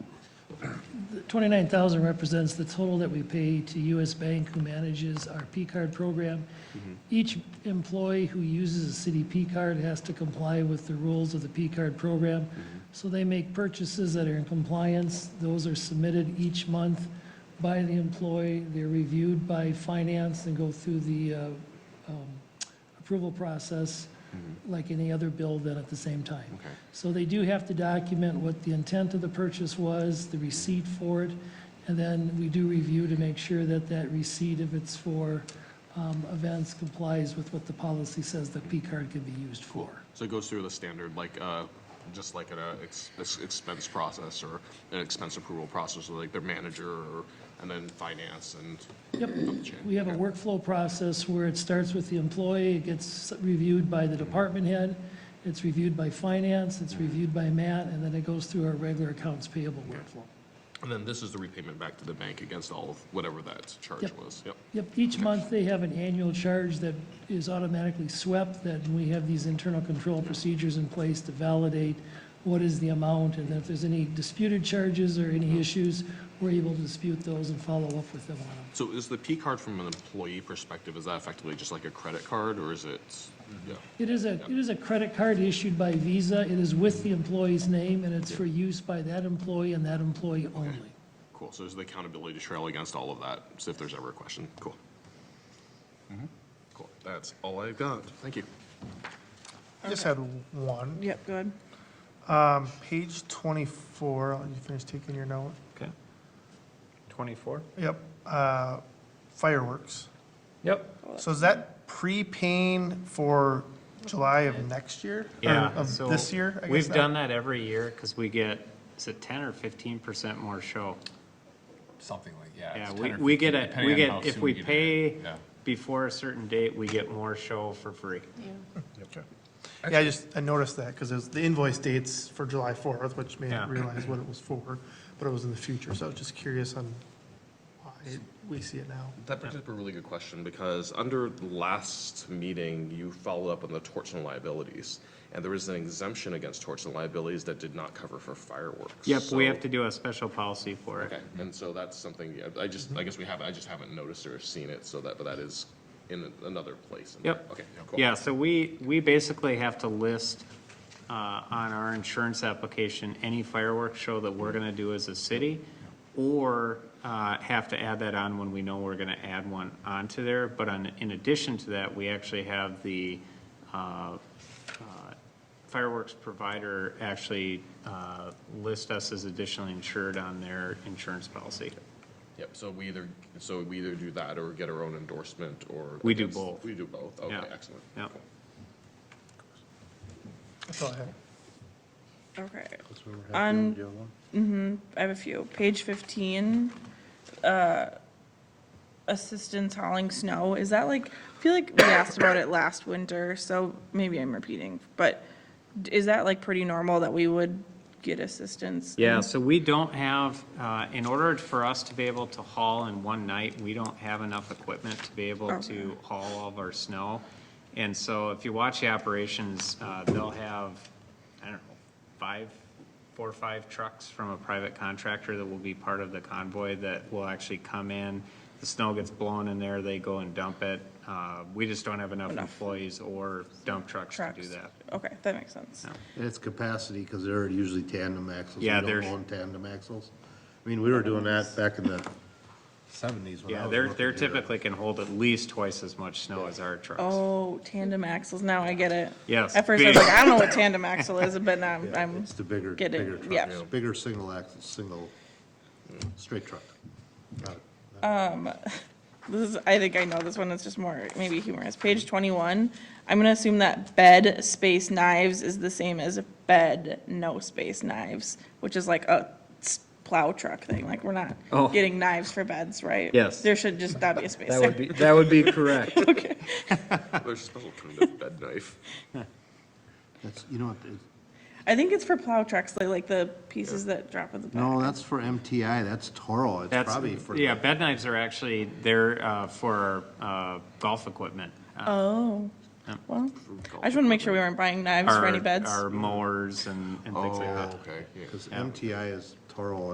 29,000 represents the total that we pay to US Bank, who manages our P-card program. Each employee who uses a city P-card has to comply with the rules of the P-card program. So they make purchases that are in compliance. Those are submitted each month by the employee. They're reviewed by finance and go through the uh, um, approval process like any other bill then at the same time. Okay. So they do have to document what the intent of the purchase was, the receipt for it, and then we do review to make sure that that receipt, if it's for um, events, complies with what the policy says the P-card can be used for. So it goes through the standard, like, uh, just like an uh, ex- ex- expense process or an expense approval process, with, like their manager or, and then finance and Yep. up the chain. We have a workflow process where it starts with the employee, it gets reviewed by the department head, it's reviewed by finance, it's reviewed by Matt, and then it goes through our regular accounts payable workflow. And then this is the repayment back to the bank against all of whatever that charge Yep. was. Yep. Yep, each month they have an annual charge that is automatically swept, that we have these internal control procedures in place to validate what is the amount, and if there's any disputed charges or any issues, we're able to dispute those and follow up with them on them. So is the P card from an employee perspective, is that effectively just like a credit card or is it? Yeah. It is a, it is a credit card issued by Visa, it is with the employee's name, and it's for use by that employee and that employee only. Cool. So there's the accountability trail against all of that. So if there's ever a question, cool. Cool. That's all I've got. Thank you. Just had one. Yep, go ahead. Um, Page 24, I'll let you finish taking your note. Okay. 24? Yep, uh, fireworks. Yep. So is that prepaying for July of next year? Or Yeah. Of so this year, I guess? We've now? done that every year because we get, is it 10 or 15% more show? something like, yeah. Yeah, it's we, 10 or we 15, get it, depending we on how get, if soon we get it. pay Yeah. before a certain date, we get more show for free. Yeah, I just, I noticed that because was the invoice dates for July 4th, which made Yeah. me realize what it was for, but it was in the future. So I was just curious on why we see it now. That brings up a really good question, because under the last meeting, you followed up on the torts and liabilities, and there was an exemption against torts and liabilities that did not cover for fireworks. Yep, we So- have to do a special policy for Okay, it. and so that's something, yeah, I just, I guess we haven't, I just haven't noticed or seen it, so that, but that is in another place. in there. Yep. Okay, cool. Yeah, so we, we basically have to list uh, on our insurance application, any fireworks show that we're going to do as a city, or uh, have to add that on when we know we're going to add one onto there. But on, in addition to that, we actually have the uh, uh, fireworks provider actually uh, list us as additionally insured on their insurance policy. Yep, so we either, so we either do that or get our own endorsement or. We do both. We do both, Yeah. okay, excellent. Yeah. Cool. That's all I had. Okay. On, mm-hmm, I have a few. Page fifteen, uh, assistance hauling snow, is that like, I feel like we asked about it last winter, so maybe I'm repeating, but d- is that like pretty normal that we would get assistance? Yeah, so we don't have, uh, in order for us to be able to haul in one night, we don't have enough equipment to be able Oh. to haul all of our snow. And so if you watch the operations, uh, they'll have, I don't know, five, four or five trucks from a private contractor that will be part of the convoy that will actually come in. The snow gets blown in there, they go and dump it. Uh, We just don't have enough employees or dump trucks to do Trucks? that. Okay, that makes sense. Yeah. And it's capacity, because they're usually tandem axles. We Yeah, don't they're- own tandem axles. I mean, we were doing that back in the seventies when I Yeah, was they're, working they're here. typically can hold at least twice as much snow as our trucks. Oh, tandem axles, now I get it. Yes, At first I was big. like, I don't know what tandem axle is, but now I'm- Yeah, I'm, It's the bigger, getting- bigger yeah. truck, bigger single axle, single, straight truck. Not a- This is, I think I know this one, it's just more maybe humorous. Page twenty-one, I'm gonna assume that bed space knives is the same as bed no space knives, which is like a s- plow truck thing, like we're not Oh. getting knives for beds, right? Yes. There should just, that be a space That would there. be, that would be correct. There's a special kind of bed knife. That's, you know what, it- I think it's for plow trucks, like, like the pieces that drop in the back. no, that's for MTI, that's Toro, it's That's, probably for. yeah, bed knives are actually, they're uh, for uh, golf equipment. uh, Oh, well, I just wanna make sure we weren't buying knives for our- any beds. Our mowers and and things like that. Okay, yeah. Because MTI is Toro